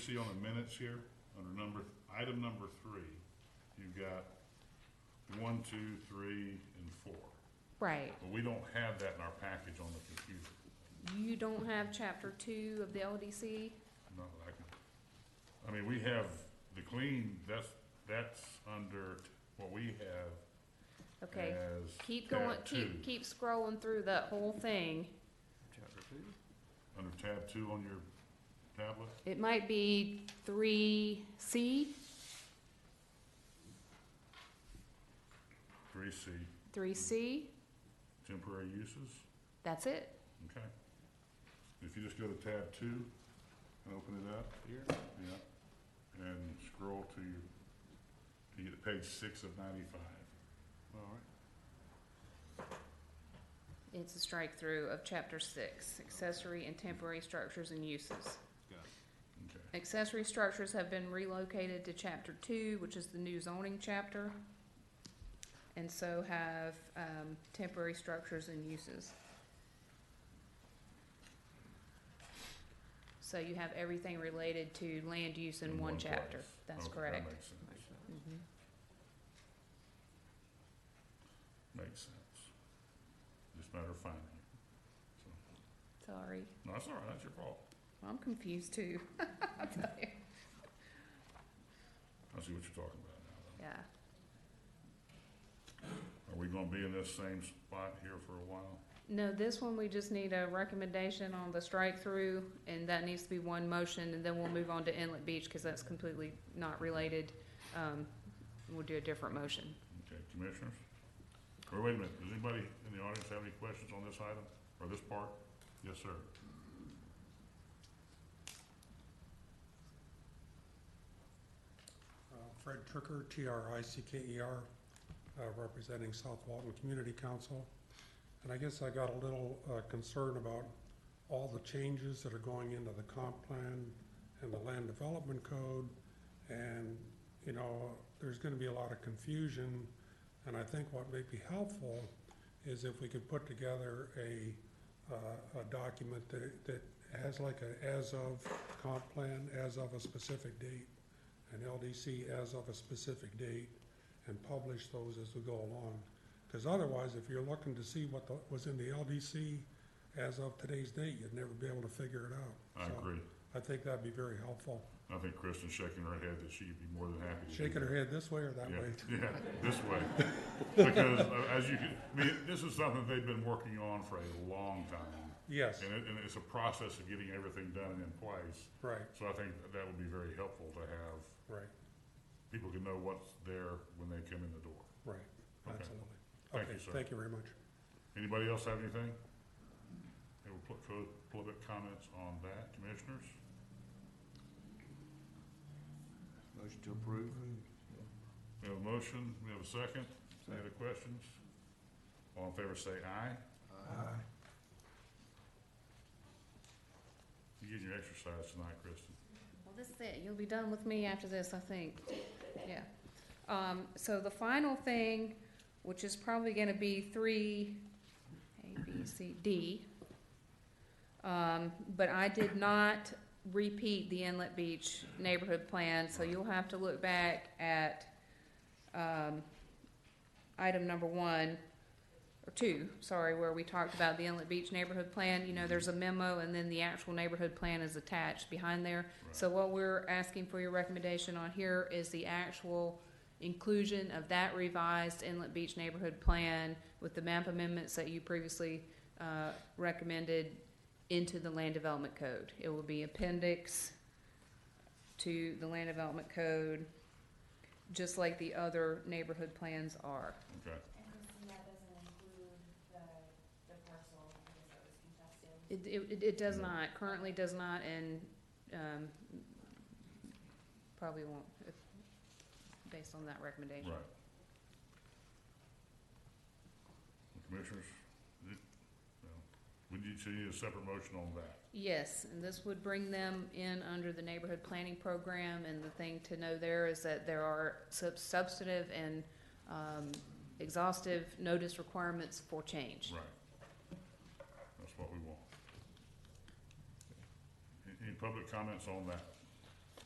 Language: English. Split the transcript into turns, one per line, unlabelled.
See on the minutes here, under number, item number three, you've got one, two, three, and four.
Right,
But we don't have that in our package on the computer,
you don't have chapter two of the LDC,
not that I can. I mean, we have the clean, that's, that's under what we have
okay,
as.
keep
tab
going, keep,
Uh, two.
keep scrolling through that whole thing.
Chapter two?
Under tab two on your tablet,
It might be three C,
three C,
three C,
temporary uses,
that's it,
okay? If you just go to tab two and open it up.
Here?
Yeah, and scroll to, your- to get to page six of ninety-five.
Alright.
it's a strike through of chapter six, accessory and temporary structures and uses.
Got it.
Okay,
Accessory structures have been relocated to chapter two, which is the new zoning chapter. And so have, um, temporary structures and uses. So you have everything related to land use in one chapter,
place.
that's
Okay,
correct.
That makes sense,
Makes sense.
Mhm.
makes sense. Just a matter of finding it. So,
Sorry,
No, that's all right, that's your fault.
I'm confused too. I'll tell you.
I see what you're talking about now.
Yeah,
though. Are we gonna be in this same spot here for a while?
no, this one, we just need a recommendation on the strike through, and that needs to be one motion, and then we'll move on to Inlet Beach, cause that's completely not related. Um, we'll do a different motion.
Okay, commissioners? Or wait a minute, does anybody in the audience have any questions on this item, or this part? Yes, sir.
Uh, Fred Tricker, T-R-I-C-K-E-R, E uh, representing South Walton Community Council. And I guess I got a little uh, concerned about all the changes that are going into the comp plan and the land development code. And, you know, there's gonna be a lot of confusion. And I think what may be helpful is if we could put together a, uh, a document that, that has like a as-of comp plan, as of a specific date an LDC as of a specific date and publish those as we go along. Because otherwise, if you're looking to see what the- was in the LDC as of today's date, you'd never be able to figure it
I
out. So
agree.
I think that'd be very helpful.
I think Kristen's shaking her head that she'd be more than happy to do
Shaking
that.
her head this way or that
Yeah,
way.
Yeah, this way. Because uh, as you can, I mean, this is something they've been working on for a long time.
Yes,
And it, and it's a process of getting everything done and in place.
right,
So I think that would be very helpful to have,
right,
people can know what's there when they come in the door.
right,
Okay.
absolutely.
Thank you,
Okay,
sir.
Thank you very much.
Anybody else have anything? Any pub- pub- public comments on that, commissioners?
Motion to approve?
We have a motion, we have a second. Any other questions? All in favor say aye.
Uh,
Aye.
You getting your exercise tonight, Kristen?
Well, this is it. You'll be done with me after this, I think. Yeah. Um, so the final thing, which is probably gonna be three, A, B, C, D. Um, but I did not repeat the Inlet Beach neighborhood plan, so you'll have to look back at, um, item number one, or two, sorry, where we talked about the Inlet Beach neighborhood plan. You know, there's a memo and then the actual neighborhood plan is attached behind there.
Right.
So what we're asking for your recommendation on here is the actual inclusion of that revised Inlet Beach neighborhood plan with the map amendments that you previously, uh, recommended into the land development code. It will be appendix to the land development code, just like the other neighborhood plans are.
Okay.
And Christina doesn't include the, the parcel, because that was contested.
It, it, it does not, currently does not, and, um, probably won't, if, based on that recommendation.
Right. Commissioners, you- no. would you, so you need a separate motion on that?
Yes, and this would bring them in under the neighborhood planning program, and the thing to know there is that there are sub- substantive and, um, exhaustive notice requirements for change.
Right. That's what we want. A- Any public comments on that?